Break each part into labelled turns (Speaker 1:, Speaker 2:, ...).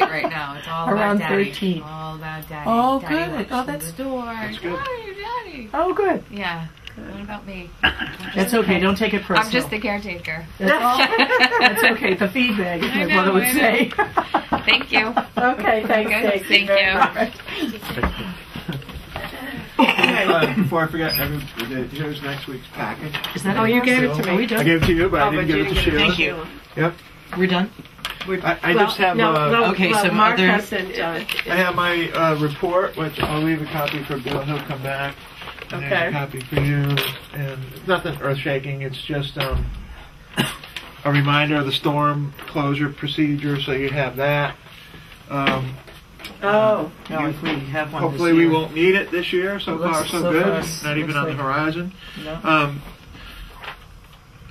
Speaker 1: right now. It's all
Speaker 2: Around
Speaker 1: about daddy.
Speaker 2: 13.
Speaker 1: All about daddy.
Speaker 2: Oh,
Speaker 1: daddy
Speaker 2: good.
Speaker 1: walks
Speaker 2: Oh,
Speaker 1: through
Speaker 2: that's-
Speaker 1: the door.
Speaker 3: That's good.
Speaker 1: Hi, daddy.
Speaker 2: Oh, good.
Speaker 1: Yeah. What about me?
Speaker 2: That's okay. Don't take it personal.
Speaker 1: I'm just the caretaker.
Speaker 2: That's okay. The feedback,
Speaker 1: I
Speaker 2: as my
Speaker 1: know,
Speaker 2: mother would
Speaker 1: I know.
Speaker 2: say.
Speaker 1: Thank you.
Speaker 2: Okay, thanks,
Speaker 1: Good. Thank
Speaker 2: Stacy.
Speaker 1: you.
Speaker 2: very much.
Speaker 3: Uh, before I forget, every, uh, here's next week's package.
Speaker 2: Is that
Speaker 4: Oh, you gave it to
Speaker 2: Are we
Speaker 4: me.
Speaker 3: I
Speaker 2: done?
Speaker 3: gave it to you, but I
Speaker 4: Oh,
Speaker 3: didn't
Speaker 4: but
Speaker 3: give
Speaker 4: you
Speaker 3: it to
Speaker 4: didn't give
Speaker 3: Sheila.
Speaker 4: it
Speaker 2: Thank you.
Speaker 3: Yep.
Speaker 2: We're done?
Speaker 3: I, I
Speaker 4: Well,
Speaker 3: just have
Speaker 4: no,
Speaker 3: uh,
Speaker 4: no,
Speaker 2: Okay,
Speaker 4: well,
Speaker 2: some
Speaker 4: Mark
Speaker 2: other-
Speaker 4: hasn't done.
Speaker 3: I have my uh, report, which I'll leave a copy for Bill. He'll come back. And there's
Speaker 4: Okay.
Speaker 3: a copy for you, and it's nothing earth-shaking. It's just um, a reminder of the storm closure procedure, so you have that. Um,
Speaker 4: Oh,
Speaker 2: No, if we have one this
Speaker 3: hopefully, we
Speaker 2: year.
Speaker 3: won't need it this year. So
Speaker 2: Looks-
Speaker 3: far, so,
Speaker 2: so
Speaker 3: good.
Speaker 2: far,
Speaker 3: It's
Speaker 2: it's-
Speaker 3: Not even
Speaker 2: looks
Speaker 3: on the
Speaker 2: like-
Speaker 3: horizon.
Speaker 2: No?
Speaker 3: Um,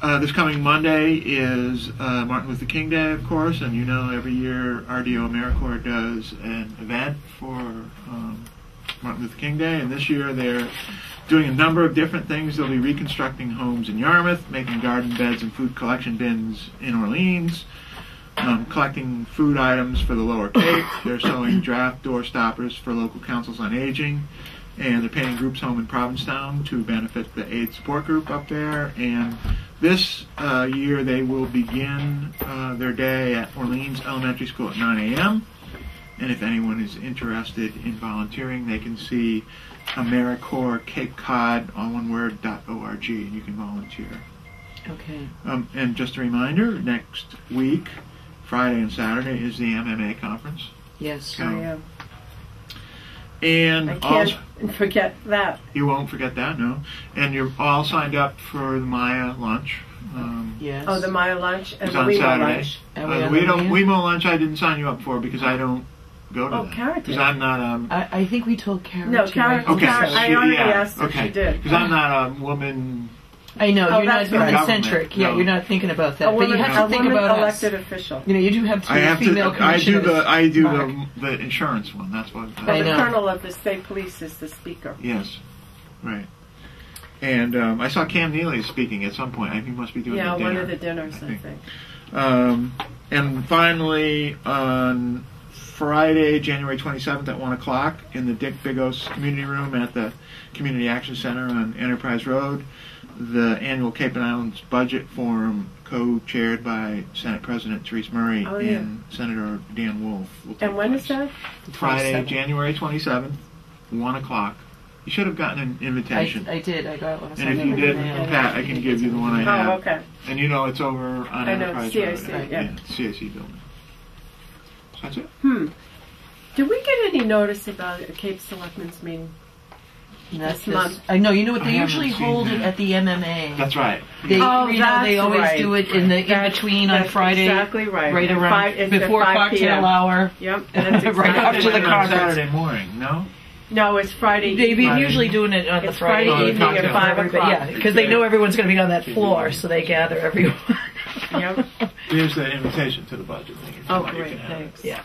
Speaker 3: uh, this coming Monday is uh, Martin Luther King Day, of course, and you know every year RDO AmeriCorps does an event for um, Martin Luther King Day, and this year they're doing a number of different things. They'll be reconstructing homes in Yarmouth, making garden beds and food collection bins in Orleans, um, collecting food items for the Lower Cape. They're selling draft door stoppers for local councils on aging and they're paying groups home in Provincetown to benefit the AIDS support group up there. And this uh, year, they will begin uh, their day at Orleans Elementary School at 9 a.m. And if anyone is interested in volunteering, they can see AmeriCorps Cape Cod, all one word, dot org, and you can volunteer.
Speaker 2: Okay.
Speaker 3: Um, and just a reminder, next week, Friday and Saturday, is the MMA conference.
Speaker 2: Yes.
Speaker 3: So-
Speaker 4: I, uh,
Speaker 3: And
Speaker 4: I
Speaker 3: also,
Speaker 4: can't forget that.
Speaker 3: You won't forget that, no. And you're all signed up for the Maya lunch. Um,
Speaker 2: Yes.
Speaker 4: Oh, the Maya lunch and
Speaker 3: It's
Speaker 4: the
Speaker 3: on
Speaker 4: Lima
Speaker 3: Saturday.
Speaker 4: lunch.
Speaker 3: uh,
Speaker 2: Are we on
Speaker 3: we
Speaker 2: the
Speaker 3: don't
Speaker 2: man?
Speaker 3: WeMo lunch. I didn't sign you up for because I don't go to
Speaker 4: Oh, Kara
Speaker 3: because
Speaker 4: did.
Speaker 3: I'm not um.
Speaker 2: I, I think we told Karen.
Speaker 4: No,
Speaker 2: to-
Speaker 4: Karen-
Speaker 3: Okay,
Speaker 4: Kara- I already asked if
Speaker 3: okay.
Speaker 4: she did.
Speaker 3: Because I'm not a woman.
Speaker 2: I know
Speaker 4: Oh,
Speaker 2: you're not
Speaker 4: that's right.
Speaker 2: eccentric. Yeah,
Speaker 3: No.
Speaker 2: you're not thinking about that.
Speaker 4: A woman,
Speaker 2: but you have
Speaker 4: a
Speaker 2: to think
Speaker 4: woman
Speaker 2: about us.
Speaker 4: elected official.
Speaker 2: You know, you do have two
Speaker 3: I have to.
Speaker 2: female
Speaker 3: I do
Speaker 2: commissioners.
Speaker 3: the. I do
Speaker 2: Mark.
Speaker 3: the the insurance one. That's what.
Speaker 4: But
Speaker 2: I
Speaker 4: the
Speaker 2: know.
Speaker 4: colonel of the state police is the speaker.
Speaker 3: Yes, right. And um, I saw Cam Neely speaking at some point. I think he must be doing
Speaker 4: Yeah,
Speaker 3: the
Speaker 4: one
Speaker 3: dinner.
Speaker 4: of the dinners, I
Speaker 3: think.
Speaker 4: think.
Speaker 3: Um, and finally, on Friday, January 27th at 1 o'clock in the Dick Bigos Community Room at the Community Action Center on Enterprise Road, the annual Cape and Islands Budget Forum, co chaired by Senate President Therese Murray
Speaker 4: Oh, yeah.
Speaker 3: and Senator Dan Wolf. will take
Speaker 4: And when
Speaker 3: place.
Speaker 4: is that?
Speaker 3: Friday,
Speaker 2: 27th.
Speaker 3: January 27th, 1 o'clock. You should have gotten an invitation.
Speaker 2: I, I did. I got one. I
Speaker 3: and
Speaker 2: saw
Speaker 3: if you
Speaker 2: that
Speaker 3: didn't,
Speaker 2: email.
Speaker 3: Pat, I can give you the one I have.
Speaker 4: Oh, okay.
Speaker 3: And you know it's over on
Speaker 4: I know,
Speaker 3: Enterprise
Speaker 4: CIC,
Speaker 3: Road.
Speaker 4: yeah.
Speaker 3: CIC building. So that's it.
Speaker 4: Hmm. Did we get any notice about a Cape Selectmen's meeting?
Speaker 2: Not
Speaker 4: This month.
Speaker 2: I know. You know what?
Speaker 3: I
Speaker 2: They
Speaker 3: haven't
Speaker 2: usually
Speaker 3: seen
Speaker 2: hold it
Speaker 3: that.
Speaker 2: at the MMA.
Speaker 3: That's right.
Speaker 2: They,
Speaker 4: Oh,
Speaker 2: you know, they
Speaker 4: that's
Speaker 2: always
Speaker 4: right.
Speaker 2: do it in the in
Speaker 4: That's-
Speaker 2: between on
Speaker 4: that's
Speaker 2: Friday,
Speaker 4: Exactly right.
Speaker 2: right
Speaker 4: At
Speaker 2: around
Speaker 4: five- it's at
Speaker 2: before
Speaker 4: 5
Speaker 2: cocktail
Speaker 4: p.m.
Speaker 2: hour.
Speaker 4: Yep. and that's
Speaker 2: Right
Speaker 4: exactly
Speaker 2: after
Speaker 3: They
Speaker 2: the
Speaker 3: do
Speaker 4: what it
Speaker 3: it on
Speaker 4: is.
Speaker 2: conference.
Speaker 3: Saturday morning, no?
Speaker 4: No, it's Friday.
Speaker 2: They've been
Speaker 4: evening.
Speaker 2: usually doing it on the
Speaker 4: It's Friday
Speaker 3: Oh, the
Speaker 4: evening at
Speaker 3: cocktail.
Speaker 4: five o'clock.
Speaker 2: Yeah, because they know everyone's going to be on that floor, so they gather everyone.
Speaker 4: Yep.
Speaker 3: Here's the invitation to the budget thing. if you
Speaker 4: Oh,
Speaker 3: want, you
Speaker 4: great,
Speaker 3: can have it.
Speaker 4: thanks.
Speaker 2: yeah.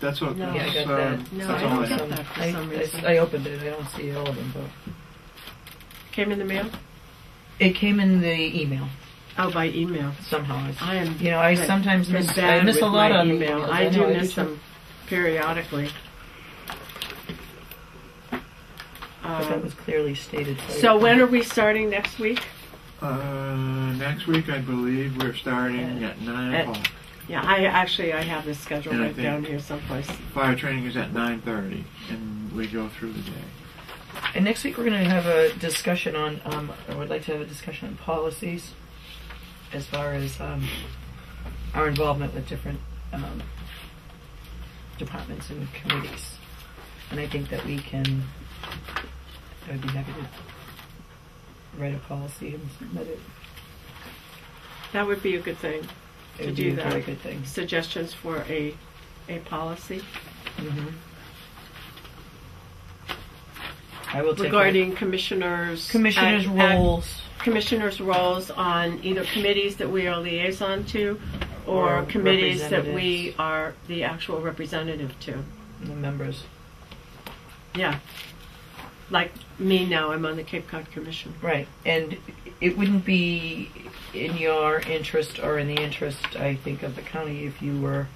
Speaker 3: That's what.
Speaker 4: No,
Speaker 3: that's,
Speaker 2: I got
Speaker 3: um,
Speaker 2: that.
Speaker 4: No,
Speaker 3: that's
Speaker 4: I
Speaker 3: all
Speaker 4: don't
Speaker 3: I
Speaker 4: get
Speaker 3: have.
Speaker 4: that for
Speaker 2: I,
Speaker 4: some
Speaker 2: I-
Speaker 4: reason.
Speaker 2: I opened it. I don't see all of them, but
Speaker 4: Came in the mail?
Speaker 2: it came in the email
Speaker 4: Oh, by email.
Speaker 2: somehow. It's,
Speaker 4: I am.
Speaker 2: you know, I
Speaker 4: I've
Speaker 2: sometimes
Speaker 4: been
Speaker 2: miss. I
Speaker 4: bad
Speaker 2: miss a
Speaker 4: with
Speaker 2: lot
Speaker 4: my
Speaker 2: of the
Speaker 4: email.
Speaker 2: emails.
Speaker 4: I do
Speaker 2: know,
Speaker 4: miss
Speaker 2: too.
Speaker 4: them periodically.
Speaker 2: But that
Speaker 4: Um,
Speaker 2: was clearly stated.
Speaker 4: so when are we starting next week?
Speaker 3: Uh, next week, I believe we're starting at nine
Speaker 4: At-
Speaker 3: o'clock.
Speaker 4: Yeah, I actually I have the schedule
Speaker 3: Yeah, I
Speaker 4: right
Speaker 3: think-
Speaker 4: down here someplace.
Speaker 3: Fire training is at nine thirty, and we go through the day.
Speaker 2: And next week we're going to have a discussion on. Um, I would like to have a discussion on policies, as far as um, our involvement with different um, departments and committees. And I think that we can. I would be happy to write a policy and submit it.
Speaker 4: That would be a good thing.
Speaker 2: It
Speaker 4: To
Speaker 2: would
Speaker 4: do
Speaker 2: be a very
Speaker 4: that.
Speaker 2: good thing.
Speaker 4: Suggestions for a a policy
Speaker 2: hmm I will take a-
Speaker 4: regarding commissioners
Speaker 2: commissioners'
Speaker 4: act- act-
Speaker 2: roles.
Speaker 4: commissioners' roles on either committees that we are liaison to or
Speaker 2: Or
Speaker 4: committees that we
Speaker 2: representatives.
Speaker 4: are the actual representative to.
Speaker 2: The members,
Speaker 4: Yeah. Like me now, I'm on the Cape Cod Commission.
Speaker 2: right? And it wouldn't be in your interest or in the interest, I think, of the county if you were